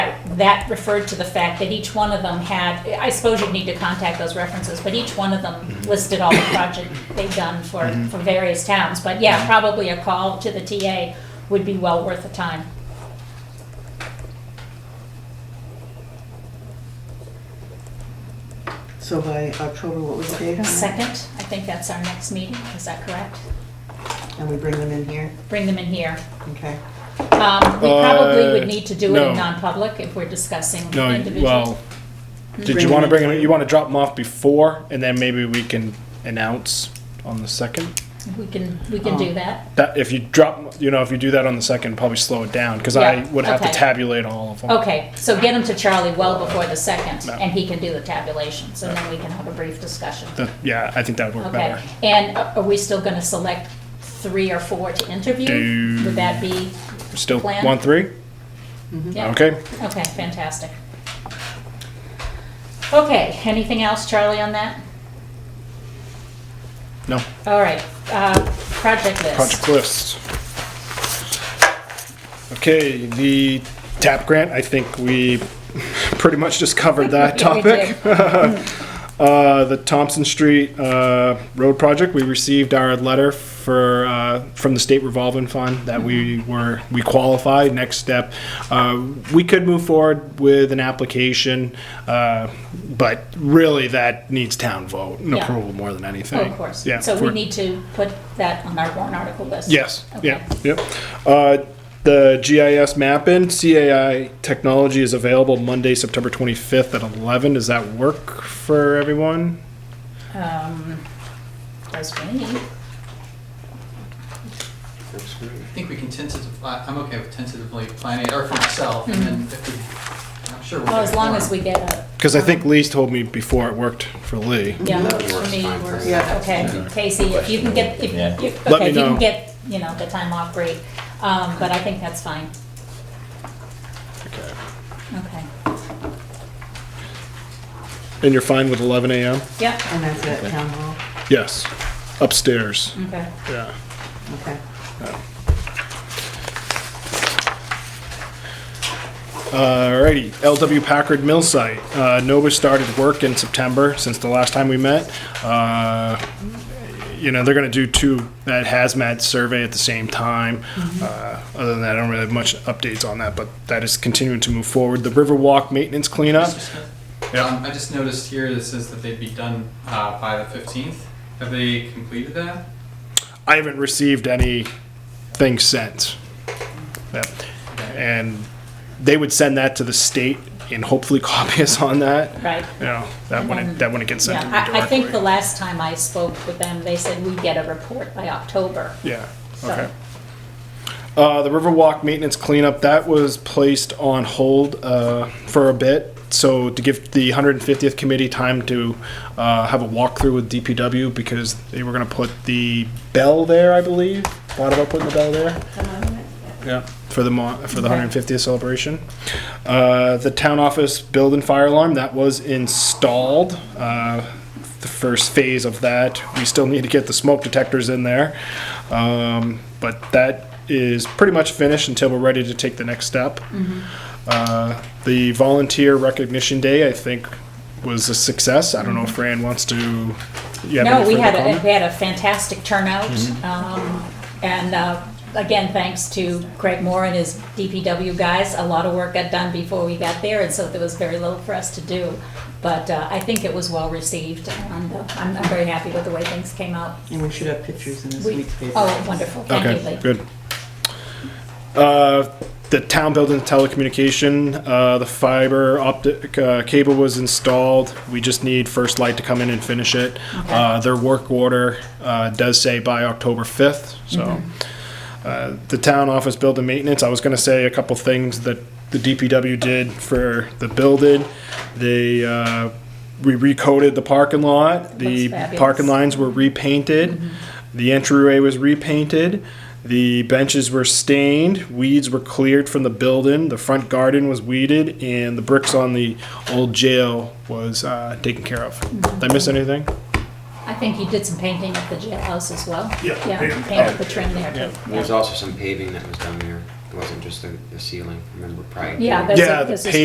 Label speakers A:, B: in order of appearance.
A: that referred to the fact that each one of them had, I suppose you'd need to contact those references, but each one of
B: Mm-hmm.
A: them listed all the project they've done for, for various towns. But
B: Mm-hmm.
A: yeah, probably a call to the TA would be well worth the time.
C: So by October, what was the date on that?
A: Second, I think that's our next meeting, is that correct?
C: And we bring them in here,
A: Bring them in here.
C: okay?
A: Um, We probably
B: Uh,
A: would need to do it in
B: no.
A: non-public if we're discussing
B: No,
A: individual.
B: well, did
C: Bring
B: you want
C: them
B: to bring them, you want to drop them off before, and then maybe we can announce on the second?
A: We can, we can do that.
B: That, if you drop, you know, if you do that on the second, probably slow it down, because I
A: Yeah,
B: would have to
A: okay.
B: tabulate all of them.
A: Okay, so get them to Charlie well before the second,
B: No.
A: and he can do the tabulations, and then we can have a brief discussion.
B: That- Yeah, I think that would work
A: Okay,
B: better.
A: and a- are we still gonna select three or four to interview?
B: Do-
A: Would that be,
B: Still,
A: Plan?
B: one, three?
A: yeah,
B: Okay,
A: okay, fantastic. Okay, anything else, Charlie, on that?
B: no,
A: All right, uh, project list.
B: project list. Okay, the TAP grant, I think we pretty much just covered that
A: Yeah, we did.
B: topic. Uh, the Thompson Street uh, Road Project, we received our letter for, uh, from the state revolving fund that we
A: Mm-hmm.
B: were, we qualified, next step. Uh, We could move forward with an application, uh, but really that needs town vote and
A: Yeah.
B: approval more than anything.
A: Oh, Of course,
B: Yeah,
A: so
B: if
A: we
B: we're-
A: need to put that on our warrant article list.
B: Yes,
A: Okay.
B: yeah, yep. Uh, The GIS mapping, CAI technology is available Monday, September 25th at 11. Does that work for everyone?
A: um, Does we need,
D: I think we can tentatively, I'm okay with tentatively planning it, or for myself, and then if we, I'm sure we'll.
A: Mm-hmm. well,
D: get
A: as long
D: more.
A: as we get a.
B: Because I think Lee's told me before it worked for Lee.
A: Yeah,
C: That
A: works for me,
E: fine
A: works,
E: for
C: me. Yeah.
A: okay, Casey, if you can get, if,
E: Yeah.
A: you-
B: Let
A: okay,
B: me
A: if you can
B: know.
A: get, you know, the time off, great, um, but I think that's fine, okay,
B: And you're fine with 11 a.m.?
A: yep,
C: And that's at town hall,
B: Yes, upstairs.
A: okay.
B: Yeah.
C: okay?
B: Uh, Alrighty, LW Packard Mill Site. Uh, Nova started work in September since the last time we met. Uh, you know, they're going to do two, that hazmat survey at the same time.
A: Mm-hmm.
B: Uh, other than that, I don't really have much updates on that, but that is continuing to move forward. The Riverwalk maintenance cleanup.
D: Mr. Smith?
B: Yeah.
D: Um, I just noticed here that says that they'd be done, uh, by the fifteenth. Have they completed that?
B: I haven't received anything sent. Yep. And they would send that to the state and hopefully copy us on that.
A: Right.
B: You know, that when it, that when it gets sent to me
A: Yeah, I, I think the
B: directly.
A: last time I spoke with them, they said we'd get a report by October,
B: Yeah,
A: so.
B: okay. Uh, the Riverwalk maintenance cleanup, that was placed on hold, uh, for a bit. So to give the hundred and fiftieth committee time to, uh, have a walkthrough with DPW because they were gonna put the bell there, I believe. Thought about putting the bell there. Yeah, for the mon- for the
A: Okay.
B: 150th celebration. Uh, the town office building fire alarm that was installed. Uh, the first phase of that. We still need to get the smoke detectors in there, um, but that is pretty much finished until we're ready to take the next step.
A: Mm-hmm.
B: Uh, the volunteer recognition day, I think, was a success. I don't know if Fran wants to. You have
A: Mm-hmm. No,
B: any
A: we
B: further
A: had, a-
B: comment? Mm-hmm.
A: we had a fantastic turnout. um, And uh, again, thanks to Craig Moore and his DPW guys. A lot of work got done before we got there, and so there was very little for us to do. But uh, I think it was well received, and uh, I'm I'm very happy with the way things came out.
C: And we should have pictures in this
A: We-
C: week's paper.
A: Oh, wonderful, thank you,
B: Okay,
A: Lee.
B: good. Uh, The town building telecommunication, uh, the fiber optic uh, cable was installed. We just need First Light to come in and finish it. Uh, Their work order uh, does say by October 5th,
A: Mm-hmm.
B: so. Uh, The town office building maintenance, I was gonna say a couple things that the DPW did for the building. They, uh, we recoded the parking lot. The
A: Looks fabulous.
B: parking lines were repainted. The entryway was repainted. The benches were stained. Weeds were cleared from the building. The front garden was weeded, and the bricks on the old jail was uh, taken care of. Did I miss anything?
A: I think you did some painting at the jailhouse as well.
B: Yeah,
A: Yeah,
B: painted.
A: painted the trim there, too.
E: There was also some paving that was done there. It wasn't just the the ceiling, remember, prior. to
A: Yeah,
E: it.
A: that's
B: Yeah,
A: it.
B: the
A: This is